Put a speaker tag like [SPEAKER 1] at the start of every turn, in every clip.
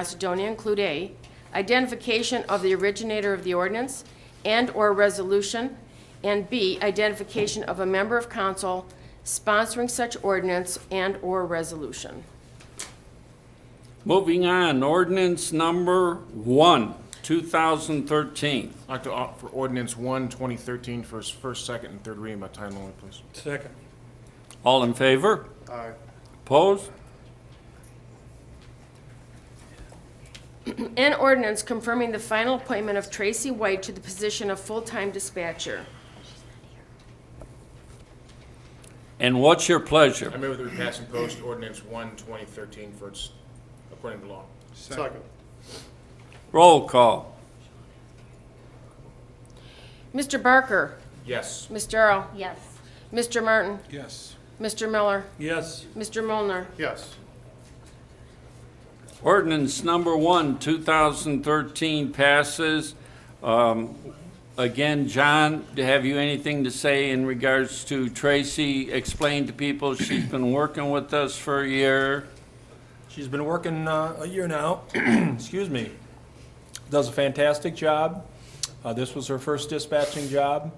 [SPEAKER 1] Macedonia include A, identification of the originator of the ordinance and/or resolution, and B, identification of a member of council sponsoring such ordinance and/or resolution.
[SPEAKER 2] Moving on, ordinance number one, 2013.
[SPEAKER 3] I'd like to opt for ordinance one, 2013, for its first, second, and third reading by title only, please.
[SPEAKER 4] Second.
[SPEAKER 2] All in favor?
[SPEAKER 3] Aye.
[SPEAKER 2] Opposed?
[SPEAKER 1] An ordinance confirming the final appointment of Tracy White to the position of full-time dispatcher.
[SPEAKER 2] And what's your
[SPEAKER 3] I
[SPEAKER 2] pleasure?
[SPEAKER 3] move that we pass and post ordinance one, 2013, for its, according to law.
[SPEAKER 4] Second.
[SPEAKER 2] Roll call.
[SPEAKER 1] Mr. Barker,
[SPEAKER 3] Yes.
[SPEAKER 1] Ms. Darrow,
[SPEAKER 5] Yes.
[SPEAKER 1] Mr. Martin,
[SPEAKER 4] Yes.
[SPEAKER 1] Mr. Miller,
[SPEAKER 4] Yes.
[SPEAKER 1] Mr. Mulner.
[SPEAKER 3] Yes.
[SPEAKER 2] Ordinance number one, 2013 passes. Um, Again, John, have you anything to say in regards to Tracy? Explain to people, she's been working with us for a year.
[SPEAKER 6] She's been working uh, a year now, excuse me. Does a fantastic job. Uh, This was her first dispatching job.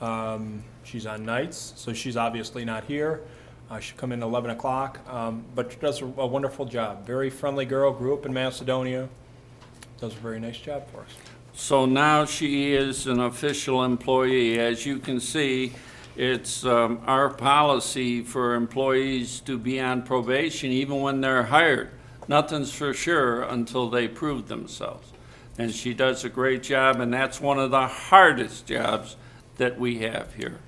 [SPEAKER 6] Um, She's on nights, so she's obviously not here. Uh, She'll come in 11 o'clock, um, but she does a wonderful job. Very friendly girl, grew up in Macedonia, does a very nice job for us.
[SPEAKER 2] So now she is an official employee. As you can see, it's um, our policy for employees to be on probation even when they're hired. Nothing's for sure until they prove themselves. And she does a great job, and that's one of the hardest jobs that we have here.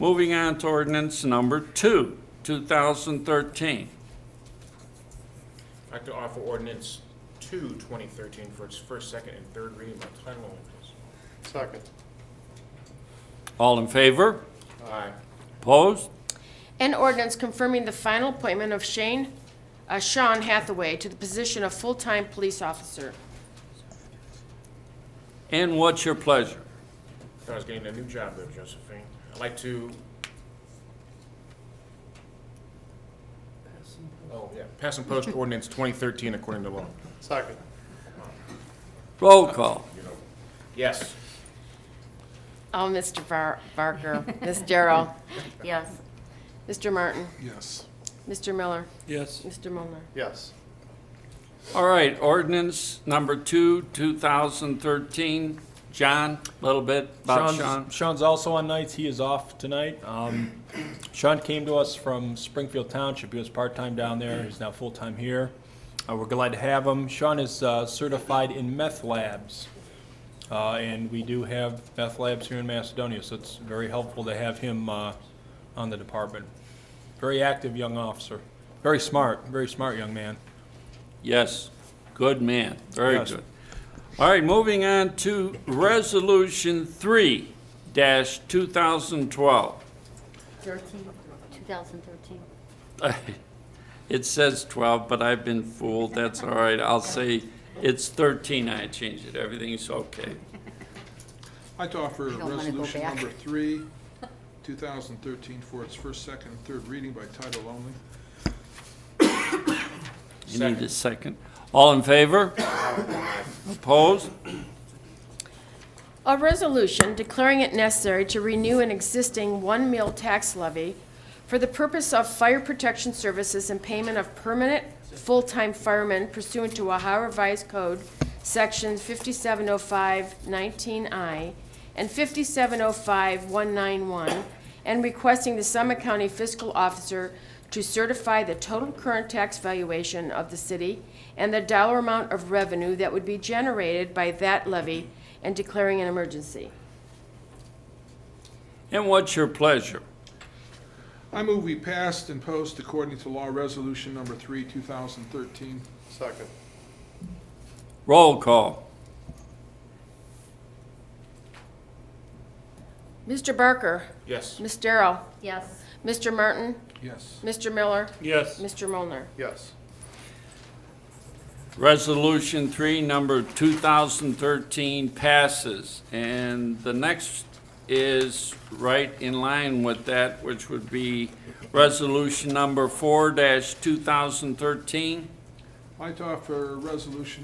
[SPEAKER 2] Moving on to ordinance number two, 2013.
[SPEAKER 3] I'd like to offer ordinance two, 2013, for its first, second, and third reading by title only, please.
[SPEAKER 4] Second.
[SPEAKER 2] All in favor?
[SPEAKER 3] Aye.
[SPEAKER 2] Opposed?
[SPEAKER 1] An ordinance confirming the final appointment of Shane, uh, Sean Hathaway to the position of full-time police officer.
[SPEAKER 2] And what's your pleasure?
[SPEAKER 3] Thought I was getting a new job there, Josephine. I'd like to... Oh, yeah. Pass and post ordinance 2013 according to law.
[SPEAKER 4] Second.
[SPEAKER 2] Roll call.
[SPEAKER 3] Yes.
[SPEAKER 1] Oh, Mr. Bar- Barker, Ms. Darrow,
[SPEAKER 5] Yes.
[SPEAKER 1] Mr. Martin,
[SPEAKER 4] Yes.
[SPEAKER 1] Mr. Miller,
[SPEAKER 4] Yes.
[SPEAKER 1] Mr. Mulner.
[SPEAKER 4] Yes.
[SPEAKER 2] All right, ordinance number two, 2013. John, a little bit about
[SPEAKER 6] Sean's-
[SPEAKER 2] Sean.
[SPEAKER 6] Sean's also on nights. He is off tonight. Um, Sean came to us from Springfield Township. He was part-time down there. He's now full-time here. Uh, we're glad to have him. Sean is uh, certified in meth labs. Uh, and we do have meth labs here in Macedonia, so it's very helpful to have him uh, on the department. Very active young officer. Very smart, very smart young man.
[SPEAKER 2] Yes, good man, very
[SPEAKER 6] Yes.
[SPEAKER 2] good. All right, moving on to Resolution 3-2012.
[SPEAKER 5] 13, 2013.
[SPEAKER 2] It says 12, but I've been fooled, that's all right. I'll say it's 13, I changed it, everything's okay.
[SPEAKER 7] I'd like to offer
[SPEAKER 5] don't wanna go
[SPEAKER 7] resolution
[SPEAKER 5] back.
[SPEAKER 7] number three, 2013, for its first, second, and third reading by title only.
[SPEAKER 2] You need a second. All in favor? Opposed?
[SPEAKER 1] A resolution declaring it necessary to renew an existing one meal tax levy for the purpose of fire protection services and payment of permanent full-time firemen pursuant to Ohio Revised Code, oh Sections 5705-19I and 5705191, and requesting the Summit County Fiscal Officer to certify the total current tax valuation of the city and the dollar amount of revenue that would be generated by that levy and declaring an emergency.
[SPEAKER 2] And what's your pleasure?
[SPEAKER 7] I move we passed and post according to law resolution number three, 2013.
[SPEAKER 4] Second.
[SPEAKER 2] Roll call.
[SPEAKER 1] Mr. Barker,
[SPEAKER 3] Yes.
[SPEAKER 1] Ms. Darrow,
[SPEAKER 5] Yes.
[SPEAKER 1] Mr. Martin,
[SPEAKER 7] Yes.
[SPEAKER 1] Mr. Miller,
[SPEAKER 4] Yes.
[SPEAKER 1] Mr. Mulner.
[SPEAKER 4] Yes.
[SPEAKER 2] Resolution 3, number 2013 passes. And the next is right in line with that, which would be Resolution number 4-2013.
[SPEAKER 7] I'd I'd like to offer resolution